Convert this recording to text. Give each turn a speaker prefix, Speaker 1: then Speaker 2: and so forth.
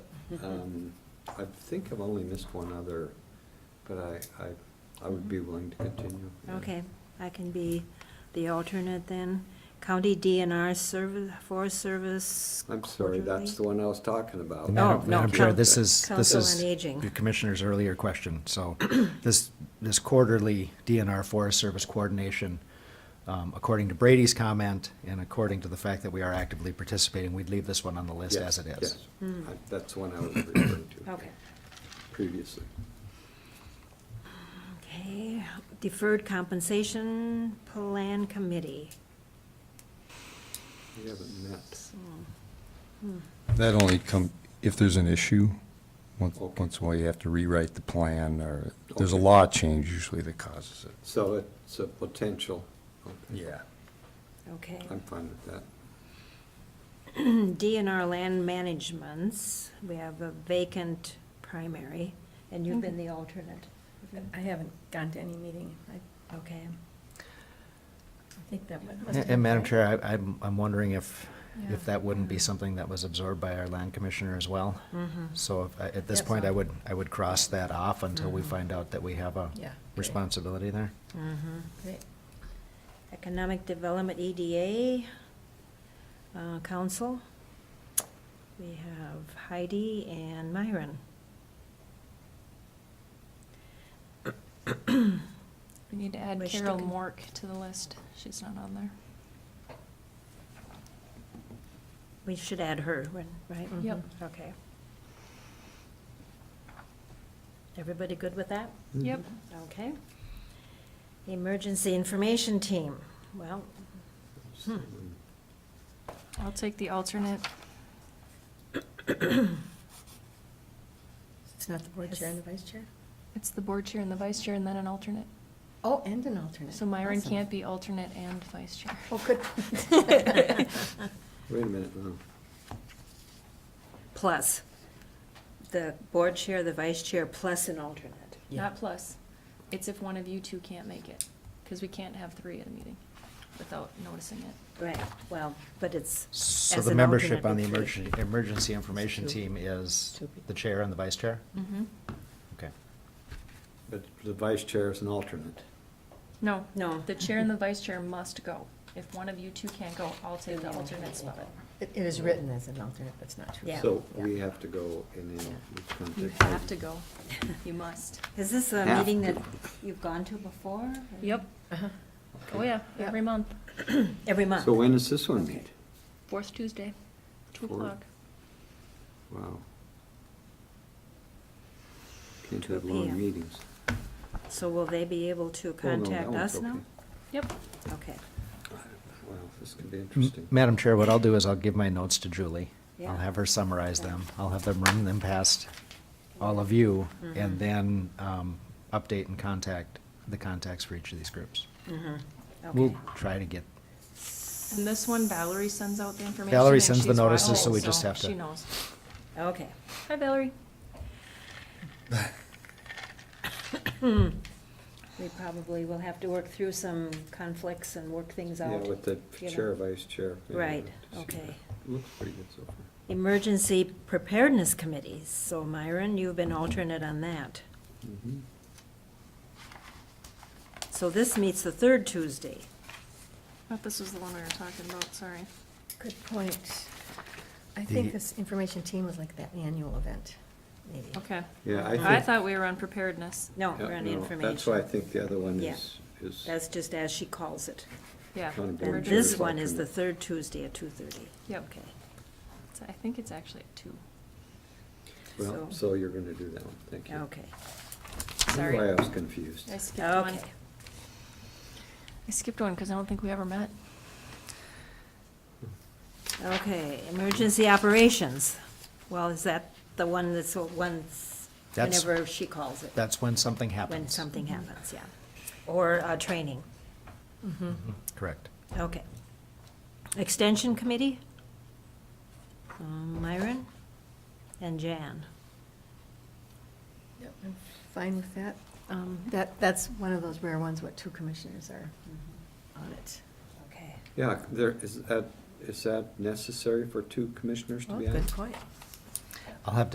Speaker 1: Um, I think I've only missed one other, but I, I, I would be willing to continue. yeah.
Speaker 2: Okay, I can be the alternate then. County DNR Service, Forest Service.
Speaker 1: I'm sorry, that's the
Speaker 2: quarterly.
Speaker 1: one I was talking about.
Speaker 2: Oh,
Speaker 3: Madam
Speaker 2: no,
Speaker 3: Madam Chair,
Speaker 2: Coun-
Speaker 3: this is, this
Speaker 2: Council
Speaker 3: is
Speaker 2: on Aging.
Speaker 3: the Commissioner's earlier question. So this, this quarterly DNR Forest Service coordination, um, according to Brady's comment and according to the fact that we are actively participating, we'd leave this one on the list
Speaker 1: Yes,
Speaker 3: as it is.
Speaker 1: yes.
Speaker 4: Hmm.
Speaker 1: I- That's the one I was referring
Speaker 4: Oh.
Speaker 1: to
Speaker 2: Okay,
Speaker 1: previously.
Speaker 2: okay. Deferred Compensation Plan Committee.
Speaker 1: We haven't met.
Speaker 5: That only come, if there's an issue, once,
Speaker 1: Okay.
Speaker 5: once in a while you have to rewrite the plan, or there's a
Speaker 1: Okay.
Speaker 5: law change usually that causes it.
Speaker 1: So it's a potential. Okay.
Speaker 5: Yeah.
Speaker 2: Okay.
Speaker 1: I'm fine with that.
Speaker 2: DNR Land Managements, we have a vacant primary, and you've been the alternate.
Speaker 6: I haven't gone to any meeting. I
Speaker 2: Okay.
Speaker 6: I think that must have
Speaker 3: And-
Speaker 6: been
Speaker 3: And Madam
Speaker 6: Frank.
Speaker 3: Chair, I, I'm, I'm wondering if,
Speaker 6: Yeah.
Speaker 3: if that wouldn't be something that was absorbed by our land commissioner as well. So if I- at this
Speaker 6: That's
Speaker 2: uh,
Speaker 3: point, I
Speaker 6: all.
Speaker 3: would, I would cross that off until
Speaker 2: Mm-hmm.
Speaker 3: we find out that we have a
Speaker 6: Yeah, great.
Speaker 3: responsibility there.
Speaker 6: Great.
Speaker 2: Economic Development EDA uh, Council. We have Heidi and Myron.
Speaker 4: We need to add
Speaker 2: Wish to
Speaker 4: Carol
Speaker 2: con-
Speaker 4: Mork to the list. She's not on there.
Speaker 2: We should add her, when- right?
Speaker 6: Yep.
Speaker 2: Mhm, Okay. Everybody good with that?
Speaker 3: Mm-hmm.
Speaker 6: Mm-hmm.
Speaker 4: Yep.
Speaker 2: Okay. Emergency Information Team. Well,
Speaker 1: um,
Speaker 4: I'll take the alternate.
Speaker 6: It's not the board chair and the vice chair?
Speaker 4: It's the board chair and the vice chair and then an alternate.
Speaker 6: Oh, and an alternate.
Speaker 4: So Myron
Speaker 6: Awesome.
Speaker 4: can't be alternate and vice chair.
Speaker 6: Oh, good.
Speaker 1: Wait a minute um, now.
Speaker 2: plus, the board chair, the vice chair, plus an alternate.
Speaker 6: Yeah.
Speaker 4: Not plus. It's if one of you two can't make it, because we can't have three at a meeting without noticing it.
Speaker 2: Right, well, but it's
Speaker 3: So
Speaker 2: as
Speaker 3: the
Speaker 2: an
Speaker 3: membership
Speaker 2: alternate
Speaker 3: on the
Speaker 2: would be-
Speaker 3: emergency, emergency information
Speaker 6: Two.
Speaker 3: team is
Speaker 6: Two people.
Speaker 3: the chair and the vice chair?
Speaker 4: Mm-hmm.
Speaker 3: Okay.
Speaker 1: But the vice chair is an alternate.
Speaker 4: No.
Speaker 2: No.
Speaker 4: The chair and the vice chair must go. If one of you two can't go, I'll take the alternate spot.
Speaker 6: It it is written as an alternate, that's not true.
Speaker 2: Yeah.
Speaker 1: So we have to go and then it's going to
Speaker 4: You
Speaker 1: take.
Speaker 4: have to go. You must.
Speaker 2: Is this a
Speaker 1: Have
Speaker 2: meeting
Speaker 1: to.
Speaker 2: that you've gone to before?
Speaker 4: Yep.
Speaker 6: Uh-huh.
Speaker 4: Oh, yeah,
Speaker 6: Yeah.
Speaker 4: every month.
Speaker 2: Every month?
Speaker 1: So when does this one meet?
Speaker 4: Fourth Tuesday, two
Speaker 1: Fourth.
Speaker 4: o'clock.
Speaker 1: Wow. Can't
Speaker 2: 2
Speaker 1: have long
Speaker 2: p.m.
Speaker 1: meetings.
Speaker 2: So will they be able to
Speaker 1: Oh, no, that
Speaker 2: contact
Speaker 1: one's
Speaker 2: us now?
Speaker 1: okay.
Speaker 4: Yep.
Speaker 2: Okay,
Speaker 1: Wow, this could be
Speaker 3: M-
Speaker 1: interesting.
Speaker 3: Madam Chair, what I'll do is I'll give my notes to Julie.
Speaker 2: Yeah.
Speaker 3: I'll have her summarize
Speaker 2: Okay.
Speaker 3: them. I'll have them run them past all of you
Speaker 2: Mm-hmm.
Speaker 3: and then um, update and contact the contacts for each of these groups. We'll
Speaker 2: okay.
Speaker 3: try to get,
Speaker 4: And this one Valerie sends out the information.
Speaker 3: Valerie
Speaker 4: and
Speaker 3: sends the
Speaker 4: she's
Speaker 3: notices,
Speaker 4: watching,
Speaker 3: so we just have to-
Speaker 4: She knows.
Speaker 2: Okay.
Speaker 4: Hi Valerie.
Speaker 2: We probably will have to work through some conflicts and work things
Speaker 1: Yeah,
Speaker 2: out.
Speaker 1: with the
Speaker 2: you know.
Speaker 1: chair, vice chair. yeah,
Speaker 2: Right,
Speaker 1: to see
Speaker 2: okay.
Speaker 1: that. Looks pretty good so far.
Speaker 2: Emergency Preparedness Committee. So Myron, you've been alternate on that.
Speaker 1: Mhm.
Speaker 2: So this meets the third Tuesday.
Speaker 4: Thought Oh, this was the one we were talking about, sorry.
Speaker 6: Good point. I
Speaker 3: The-
Speaker 6: think this information team was like that annual event, maybe.
Speaker 4: Okay.
Speaker 1: Yeah,
Speaker 2: Oh,
Speaker 1: I think.
Speaker 4: I thought we were on preparedness.
Speaker 2: No,
Speaker 1: yeah,
Speaker 2: we're on
Speaker 1: no,
Speaker 2: information.
Speaker 1: That's why I think the other one
Speaker 2: Yeah.
Speaker 1: is, is,
Speaker 2: That's just as she calls it.
Speaker 4: Yeah.
Speaker 1: County board
Speaker 2: And
Speaker 1: Board
Speaker 2: this
Speaker 1: chair's
Speaker 2: one is the
Speaker 1: alternate.
Speaker 2: third Tuesday at 2:30.
Speaker 4: Yep.
Speaker 2: Okay.
Speaker 4: So I think it's actually at two.
Speaker 1: well,
Speaker 2: so-
Speaker 1: so you're going to do that one, thank you.
Speaker 2: Okay,
Speaker 1: That's
Speaker 4: Sorry.
Speaker 1: Why I was confused.
Speaker 4: I skipped one.
Speaker 2: okay.
Speaker 4: I skipped one because I don't think we ever met.
Speaker 2: Okay, emergency operations. Well, is that the one that's once,
Speaker 3: That's-
Speaker 2: whenever she calls it?
Speaker 3: that's when something happens.
Speaker 2: When something happens, yeah. Or uh, training,
Speaker 6: Mm-hmm.
Speaker 3: Mm-hmm. Correct.
Speaker 2: okay. Extension Committee? Um, Myron and Jan.
Speaker 6: Yep, I'm Fine with that. Um, That, that's one of those rare ones, what two commissioners are on it.
Speaker 2: Okay.
Speaker 1: Yeah, there, is that, is that necessary for two commissioners to
Speaker 6: Oh,
Speaker 1: be on?
Speaker 6: good point.
Speaker 3: I'll have